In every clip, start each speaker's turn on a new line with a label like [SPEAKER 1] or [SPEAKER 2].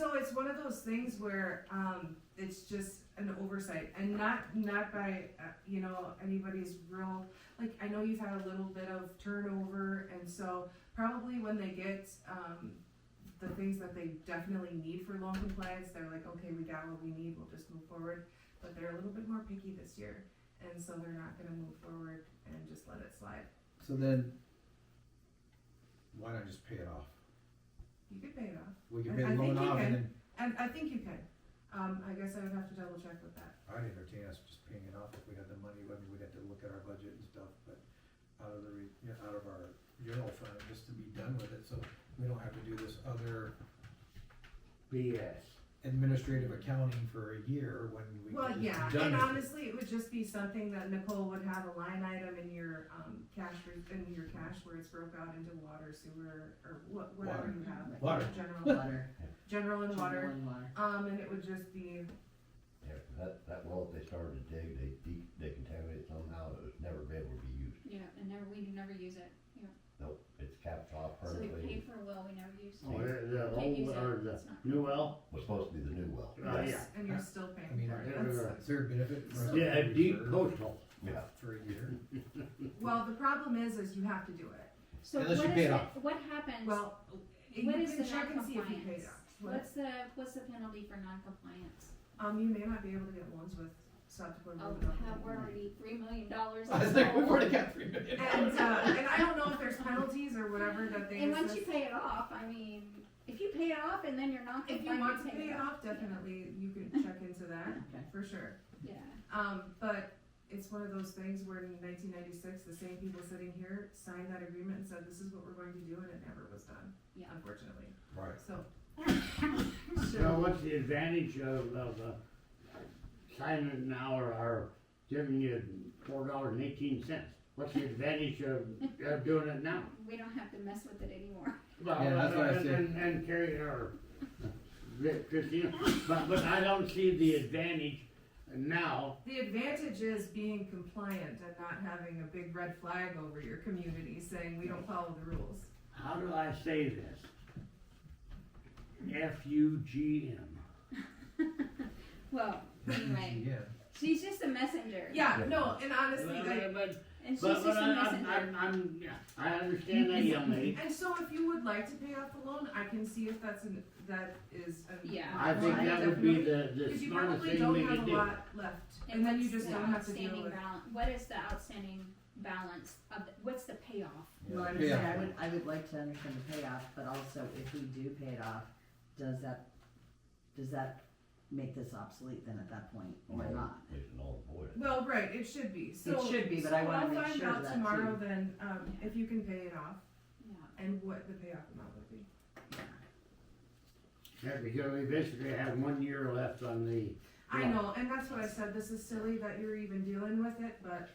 [SPEAKER 1] no, it's one of those things where um, it's just an oversight, and not not by uh, you know anybody's real. Like I know you've had a little bit of turnover, and so probably when they get um, the things that they definitely need for loan compliance, they're like, okay, we got what we need, we'll just move forward. But they're a little bit more picky this year, and so they're not going to move forward and just let it slide.
[SPEAKER 2] So then, why not just pay it off?
[SPEAKER 1] You could pay it off,
[SPEAKER 2] We can
[SPEAKER 1] I-
[SPEAKER 2] pay
[SPEAKER 1] I
[SPEAKER 2] the
[SPEAKER 1] think
[SPEAKER 2] loan
[SPEAKER 1] you
[SPEAKER 2] off
[SPEAKER 1] can.
[SPEAKER 2] and then,
[SPEAKER 1] and I think you can. Um, I guess I would have to double check with that.
[SPEAKER 2] I'd entertain us just paying it off if we had the money, I mean, we'd have to look at our budget and stuff, but out of the, re- you know, out of our general fund, just to be done with it, so we don't have to do this other
[SPEAKER 3] BS.
[SPEAKER 2] administrative accounting for a year when we
[SPEAKER 1] Well,
[SPEAKER 2] could
[SPEAKER 1] yeah,
[SPEAKER 2] just be done
[SPEAKER 1] and
[SPEAKER 2] with it.
[SPEAKER 1] honestly, it would just be something that Nicole would have a line item in your, um, cash, re- in your cash where it's broke out into water, sewer, or what, whatever
[SPEAKER 2] Water.
[SPEAKER 1] you have.
[SPEAKER 2] Water.
[SPEAKER 1] General,
[SPEAKER 4] Water.
[SPEAKER 1] general and water,
[SPEAKER 4] Drinking water.
[SPEAKER 1] um, and it would just be,
[SPEAKER 5] Yeah, 'cause that, that well, if they started to dig, they de- they contaminated somehow, it would never be able to be used.
[SPEAKER 6] Yeah, and never, we never use it.
[SPEAKER 5] Nope, it's capped off
[SPEAKER 6] So we
[SPEAKER 5] perfectly,
[SPEAKER 6] pay for a well we never use.
[SPEAKER 3] Oh, the, the
[SPEAKER 6] Can't use
[SPEAKER 3] old,
[SPEAKER 6] it.
[SPEAKER 3] or the
[SPEAKER 6] It's not-
[SPEAKER 3] new well?
[SPEAKER 5] was supposed to be the new well.
[SPEAKER 3] Oh, yeah.
[SPEAKER 1] yes, and you're still
[SPEAKER 2] I
[SPEAKER 1] paying
[SPEAKER 2] mean,
[SPEAKER 1] for it.
[SPEAKER 3] Yeah.
[SPEAKER 1] That's-
[SPEAKER 2] is there a benefit for us? to
[SPEAKER 3] Yeah, a deep
[SPEAKER 2] reserve
[SPEAKER 3] coastal.
[SPEAKER 5] Yeah,
[SPEAKER 2] For a year?
[SPEAKER 1] Well, the problem is, is you have to do it.
[SPEAKER 6] So
[SPEAKER 2] Unless you
[SPEAKER 6] what
[SPEAKER 2] pay it
[SPEAKER 6] is it,
[SPEAKER 2] off.
[SPEAKER 6] what happens,
[SPEAKER 1] Well, you
[SPEAKER 6] what is the
[SPEAKER 1] can check and see if you paid
[SPEAKER 6] non-compliance?
[SPEAKER 1] off. What-
[SPEAKER 6] What's the, what's the penalty for non-compliance?
[SPEAKER 1] Um, you may not be able to get loans with South Dakota.
[SPEAKER 6] Oh,
[SPEAKER 1] Road Development.
[SPEAKER 6] have, we're already three million dollars.
[SPEAKER 2] I was like, we've already got three million
[SPEAKER 1] And,
[SPEAKER 2] dollars.
[SPEAKER 1] uh, and I don't know if there's penalties or whatever that they.
[SPEAKER 6] And once
[SPEAKER 1] assess.
[SPEAKER 6] you pay it off, I mean, if you pay it off and then you're not
[SPEAKER 1] If you want
[SPEAKER 6] compliant,
[SPEAKER 1] to
[SPEAKER 6] you
[SPEAKER 1] pay it off, definitely you can check into that
[SPEAKER 4] Okay.
[SPEAKER 1] for sure.
[SPEAKER 6] Yeah,
[SPEAKER 1] Um, but it's one of those things where in 1996, the same people sitting here signed that agreement and said, "This is what we're going to do," and it never was done,
[SPEAKER 6] yeah.
[SPEAKER 1] unfortunately.
[SPEAKER 2] Right.
[SPEAKER 1] So
[SPEAKER 3] So what's the advantage of, of, uh, signing now or, or giving you four dollars and eighteen cents? What's the advantage of, of doing it now?
[SPEAKER 6] We don't have to mess with it anymore.
[SPEAKER 3] Well,
[SPEAKER 2] Yeah, that's what I
[SPEAKER 3] and-
[SPEAKER 2] said.
[SPEAKER 3] And, and Carrie, or Christina, but, but I don't see the advantage now.
[SPEAKER 1] the advantage is being compliant and not having a big red flag over your community saying we don't follow the rules.
[SPEAKER 3] How do I say this? F U G M.
[SPEAKER 6] Well, anyway,
[SPEAKER 2] Yeah.
[SPEAKER 6] she's just a messenger.
[SPEAKER 1] Yeah, no, and honestly,
[SPEAKER 3] But,
[SPEAKER 1] like,
[SPEAKER 3] but,
[SPEAKER 6] And she's
[SPEAKER 3] but
[SPEAKER 6] just a
[SPEAKER 3] I'm, I'm,
[SPEAKER 6] messenger.
[SPEAKER 3] I'm, I'm, yeah, I understand that young lady.
[SPEAKER 1] and so if you would like to pay off the loan, I can see if that's an that is. An,
[SPEAKER 6] Yeah.
[SPEAKER 3] I think that would be the, the
[SPEAKER 1] Because you
[SPEAKER 3] smartest
[SPEAKER 1] probably
[SPEAKER 3] thing we
[SPEAKER 1] don't have
[SPEAKER 3] could
[SPEAKER 1] a
[SPEAKER 3] do.
[SPEAKER 1] lot left, and then you
[SPEAKER 6] what's
[SPEAKER 1] just
[SPEAKER 6] the
[SPEAKER 1] don't have to deal
[SPEAKER 6] outstanding
[SPEAKER 1] with.
[SPEAKER 6] balan- What is the outstanding balance of, the- what's the payoff?
[SPEAKER 2] Yeah,
[SPEAKER 4] Well, I would
[SPEAKER 2] pay
[SPEAKER 4] say,
[SPEAKER 2] off.
[SPEAKER 4] I would, I would like to understand the payoff, but also if we do pay it off, does that, does that make this obsolete then at that point, or not?
[SPEAKER 5] It's an old void.
[SPEAKER 1] Well, right, it should be, so.
[SPEAKER 4] should be, but I
[SPEAKER 1] so
[SPEAKER 4] wanna
[SPEAKER 1] I'll
[SPEAKER 4] make
[SPEAKER 1] find
[SPEAKER 4] sure
[SPEAKER 1] out
[SPEAKER 4] of that,
[SPEAKER 1] Tomorrow
[SPEAKER 4] too.
[SPEAKER 1] then, um, if you can pay it off,
[SPEAKER 6] Yeah.
[SPEAKER 1] and what the payoff amount would be.
[SPEAKER 3] Yeah, because we basically have one year left on the,
[SPEAKER 1] I
[SPEAKER 3] Yeah.
[SPEAKER 1] know, and that's what I said, this is silly that you're even dealing with it, but,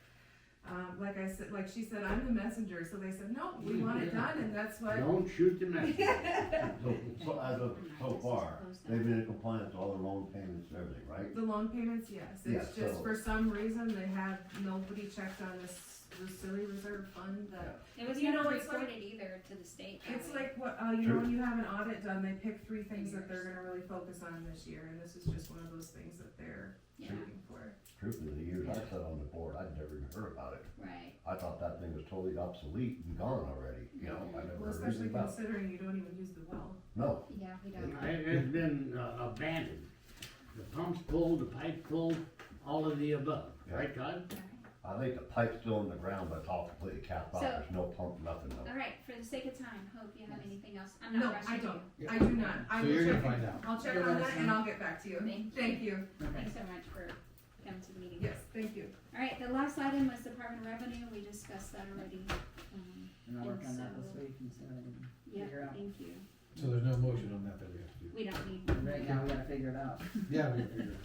[SPEAKER 1] um, like I said, like she said, I'm the messenger, so they said, no, we want it
[SPEAKER 3] Yeah.
[SPEAKER 1] done, and that's what.
[SPEAKER 3] don't shoot the messenger.
[SPEAKER 5] So, so as of, so far, they've been in compliance with all the loan payments and everything, right?
[SPEAKER 1] The loan payments, yes,
[SPEAKER 5] Yeah,
[SPEAKER 1] it's just
[SPEAKER 5] so-
[SPEAKER 1] for some reason they have, nobody checked on this, this silly reserve fund that
[SPEAKER 6] It was
[SPEAKER 1] You
[SPEAKER 6] never
[SPEAKER 1] know, it's like-
[SPEAKER 6] reported either to the state. that
[SPEAKER 1] It's
[SPEAKER 6] way.
[SPEAKER 1] like what uh, you know
[SPEAKER 5] True.
[SPEAKER 1] when you have an audit done, they pick three things that they're going to really focus on this year, and this is just one of those things that they're
[SPEAKER 6] Yeah,
[SPEAKER 1] looking for.
[SPEAKER 5] Truthfully, the years I sat on the board, I'd never even heard about it.
[SPEAKER 6] right.
[SPEAKER 5] I thought that thing was totally obsolete and gone already, you know, I never
[SPEAKER 1] Well,
[SPEAKER 5] heard anything
[SPEAKER 1] especially
[SPEAKER 5] about it.
[SPEAKER 1] considering you don't even use the well.
[SPEAKER 5] No,
[SPEAKER 6] Yeah, we don't.
[SPEAKER 3] It has been uh, abandoned. The pump's pulled, the pipe pulled, all of the above, right Todd?
[SPEAKER 6] All
[SPEAKER 5] I think the pipe's still in the ground, but it's all completely capped off,
[SPEAKER 6] So-
[SPEAKER 5] there's no pump, nothing, no.
[SPEAKER 6] right. All right, for the sake of time, hope you have anything else. I'm
[SPEAKER 1] No,
[SPEAKER 6] not rushing
[SPEAKER 1] I
[SPEAKER 6] you.
[SPEAKER 1] don't.
[SPEAKER 2] Yeah.
[SPEAKER 1] I do not. I
[SPEAKER 2] So
[SPEAKER 1] will
[SPEAKER 2] you're gonna
[SPEAKER 1] check
[SPEAKER 2] find
[SPEAKER 1] it.
[SPEAKER 2] out.
[SPEAKER 1] I'll check
[SPEAKER 4] You'll
[SPEAKER 1] on
[SPEAKER 4] let
[SPEAKER 1] that
[SPEAKER 4] us
[SPEAKER 1] and
[SPEAKER 4] know.
[SPEAKER 1] I'll get back to you.
[SPEAKER 6] Thank you.
[SPEAKER 1] Thank you.
[SPEAKER 4] Okay.
[SPEAKER 6] Thanks so much for coming to the meeting.
[SPEAKER 1] Yes, thank you.
[SPEAKER 6] All right, the last item was Department of Revenue. We discussed that already. Um,
[SPEAKER 4] And I'll work on that
[SPEAKER 6] And
[SPEAKER 4] this
[SPEAKER 6] so-
[SPEAKER 4] week and see what I can,
[SPEAKER 6] yeah,
[SPEAKER 4] Figure out.
[SPEAKER 6] thank you.
[SPEAKER 2] So there's no motion on that that we have to do?
[SPEAKER 6] We don't need.
[SPEAKER 4] right now, we gotta figure it out.
[SPEAKER 2] Yeah, we have to figure it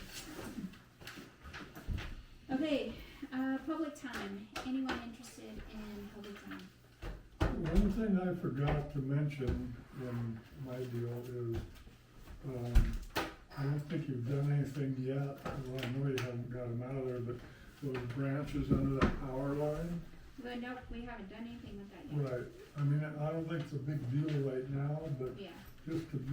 [SPEAKER 2] out.
[SPEAKER 6] Okay, uh, public time. Anyone interested in public time?
[SPEAKER 7] One thing I forgot to mention in my deal is, um, I don't think you've done anything yet, well, I know you haven't got them out of there, but those branches under that power line,
[SPEAKER 6] Well, no, we haven't done anything with that yet.
[SPEAKER 7] right, I mean, I don't think it's a big deal right now, but
[SPEAKER 6] Yeah.
[SPEAKER 7] just to